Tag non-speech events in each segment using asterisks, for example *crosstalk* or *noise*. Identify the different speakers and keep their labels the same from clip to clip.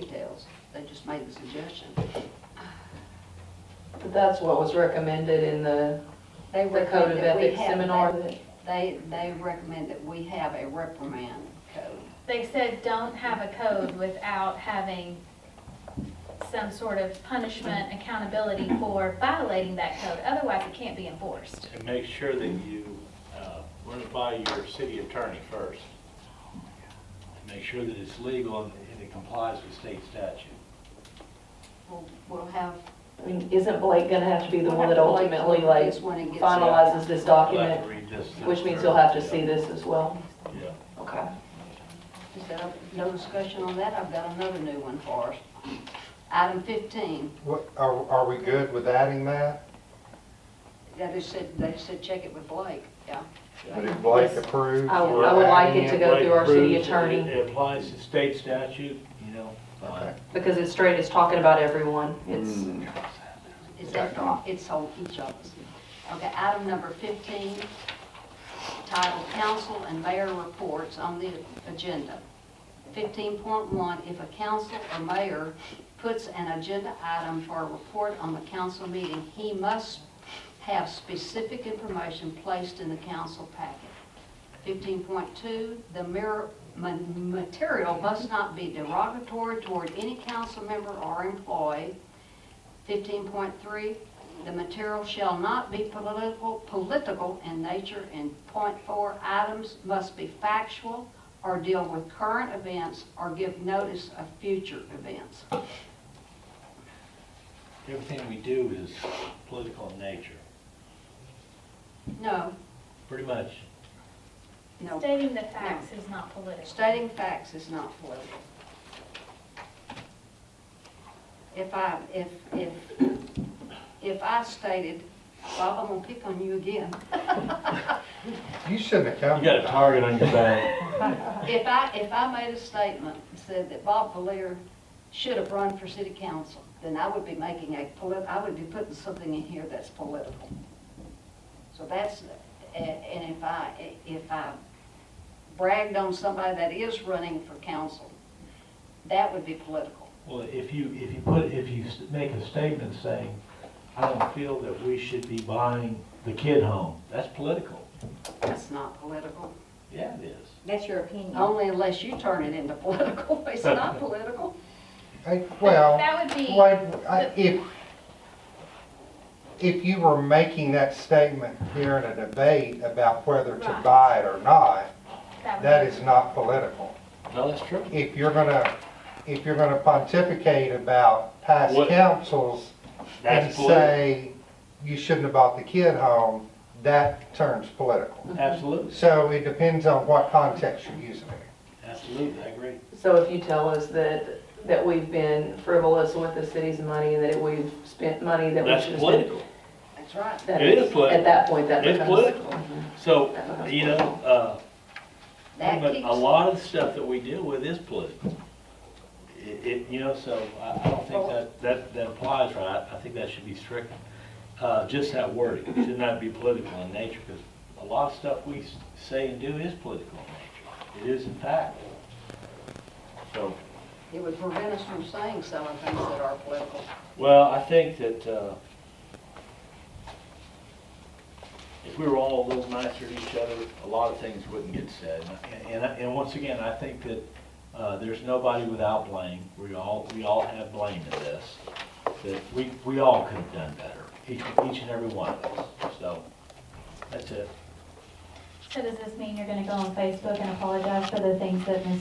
Speaker 1: details, they just made the suggestion.
Speaker 2: That's what was recommended in the,
Speaker 1: They
Speaker 2: the code
Speaker 1: recommend
Speaker 2: of
Speaker 1: that we
Speaker 2: ethics
Speaker 1: have-
Speaker 2: seminar that,
Speaker 1: They, they recommend that we have a reprimand code.
Speaker 3: They said don't have a code without having some sort of punishment, accountability for violating that code, otherwise it can't be enforced.
Speaker 4: And make sure that you uh, run it by your city attorney first. And make sure that it's legal and and it complies with state statute.
Speaker 1: We'll, we'll have.
Speaker 2: I mean, isn't Blake gonna have to be the
Speaker 1: we'll
Speaker 2: one
Speaker 1: have
Speaker 2: that
Speaker 1: to wait
Speaker 2: ultimately
Speaker 1: till
Speaker 2: like
Speaker 1: this one and get some-
Speaker 2: finalizes this
Speaker 4: You'll have to
Speaker 2: document?
Speaker 4: read this.
Speaker 2: Which means you'll have to see this as well.
Speaker 4: Yeah.
Speaker 2: Okay.
Speaker 1: Is that, no discussion on that, I've got another new one for us. Item fifteen,
Speaker 5: What, are, are we good with adding that?
Speaker 1: yeah, they said, they said check it with Blake, yeah.
Speaker 5: That if Blake
Speaker 2: Yes.
Speaker 5: approves?
Speaker 2: I would-
Speaker 5: we're
Speaker 2: I would like
Speaker 5: adding
Speaker 2: it to go through our city attorney.
Speaker 4: It applies to state statute, you know.
Speaker 5: Okay.
Speaker 2: Because it's straight, it's talking about everyone. It's,
Speaker 4: Hmm.
Speaker 5: Mm.
Speaker 1: It's,
Speaker 5: Got it.
Speaker 1: after- it's on each of us. Okay, item number 15, titled Council and Mayor Reports on the Agenda. 15.1, if a council or mayor puts an agenda item for a report on the council meeting, he must have specific information placed in the council packet. 15.2, the mirror- ma- material must not be derogatory toward any council member or employee. 15.3, the material shall not be political, political in nature. And point four, items must be factual or deal with current events or give notice of future events.
Speaker 4: Everything we do is political in nature,
Speaker 1: No,
Speaker 4: pretty much.
Speaker 1: no,
Speaker 3: Stating the facts is not political.
Speaker 1: stating facts is not political. If I, if, if, if I stated, well, I'm gonna pick on you again.
Speaker 5: You shouldn't have come.
Speaker 4: You got a target on your back.
Speaker 1: If I, if I made a statement, and said that Bob Valier should have run for city council, then I would be making a polit, I would be putting something in here that's political. So that's, a- and if I, if I bragged on somebody that is running for council, that would be political.
Speaker 4: *laughs* Well, if you, if you put, if you s- make a statement saying, I don't feel that we should be buying the kid home, that's political.
Speaker 1: That's not political.
Speaker 4: Yeah, it is.
Speaker 6: That's your opinion.
Speaker 1: Only unless you turn it into *laughs* political, it's
Speaker 4: *laughs*
Speaker 1: not political.
Speaker 5: Hey,
Speaker 3: But
Speaker 5: Well,
Speaker 3: That would be,
Speaker 5: wait, I- if, if you were making that statement here in a debate about whether to
Speaker 3: Right.
Speaker 5: buy it or not,
Speaker 3: that
Speaker 5: that
Speaker 3: would be,
Speaker 5: is not political.
Speaker 4: No, that's true.
Speaker 5: If you're gonna, if you're gonna pontificate about past
Speaker 4: What-
Speaker 5: councils and
Speaker 4: That's political.
Speaker 5: say you shouldn't have bought the kid home, that turns political.
Speaker 4: Absolutely,
Speaker 5: So it depends on what context you're using it.
Speaker 4: absolutely, I agree.
Speaker 2: so if you tell us that, that we've been frivolous with the city's money and that we've spent money that we
Speaker 4: That's
Speaker 2: should have spent.
Speaker 4: political.
Speaker 1: That's right.
Speaker 2: that
Speaker 4: It is
Speaker 2: At
Speaker 4: political.
Speaker 2: that point, that
Speaker 4: It's
Speaker 2: becomes.
Speaker 4: political. So,
Speaker 2: That becomes
Speaker 4: you know, uh,
Speaker 1: That
Speaker 4: but
Speaker 1: keeps-
Speaker 4: a lot of the stuff that we deal with is political. It, it, you know, so I, I don't think that, that, that applies right. I think that should be strict. Uh, just that wording, it should not be political in nature, because a lot of stuff we s- say and do is political in nature. It is in fact. So,
Speaker 1: It would prevent us from saying some of the things that are political.
Speaker 4: Well, I think that, uh, if we were all a little nicer to each other, a lot of things wouldn't get said. And- And, I- and once again, I think that, uh, there's nobody without blame. We all, we all have blame in this. That we, we all could have done better, each, each and every one of us. So, that's it.
Speaker 7: So does this mean you're gonna go on Facebook and apologize for the things that Ms.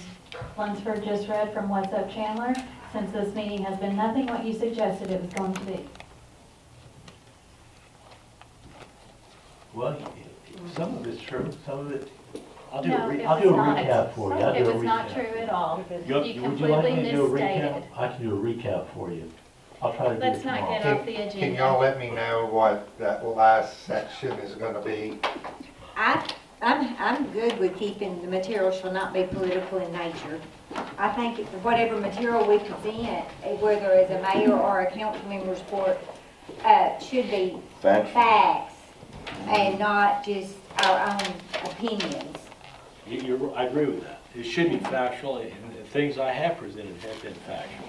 Speaker 7: Lunsford just read from What's Up Chandler? Since this meeting has been nothing what you suggested it was going to be.
Speaker 4: Well, some of it's true, some of it, I'll do a,
Speaker 3: No,
Speaker 4: re-
Speaker 3: it
Speaker 4: I'll do a
Speaker 3: was not.
Speaker 4: recap for you. I'll
Speaker 3: it
Speaker 4: do a
Speaker 3: was not
Speaker 4: recap.
Speaker 3: true at all.
Speaker 4: You-
Speaker 3: You
Speaker 4: Would you like me to do a
Speaker 3: completely
Speaker 4: recap?
Speaker 3: misstated.
Speaker 4: I can do a recap for you. I'll try to do it
Speaker 3: Let's not
Speaker 4: tomorrow.
Speaker 3: get off the agenda.
Speaker 5: Can y'all let me know what that last section is gonna be?
Speaker 6: I, I'm, I'm good with keeping the material shall not be political in nature. I think it- whatever material we present, eh, whether as a mayor or a council member's report, uh, should be facts and not just our own opinions.
Speaker 4: You- You're, I agree with that. It should be factual, and if things I have presented have been factual.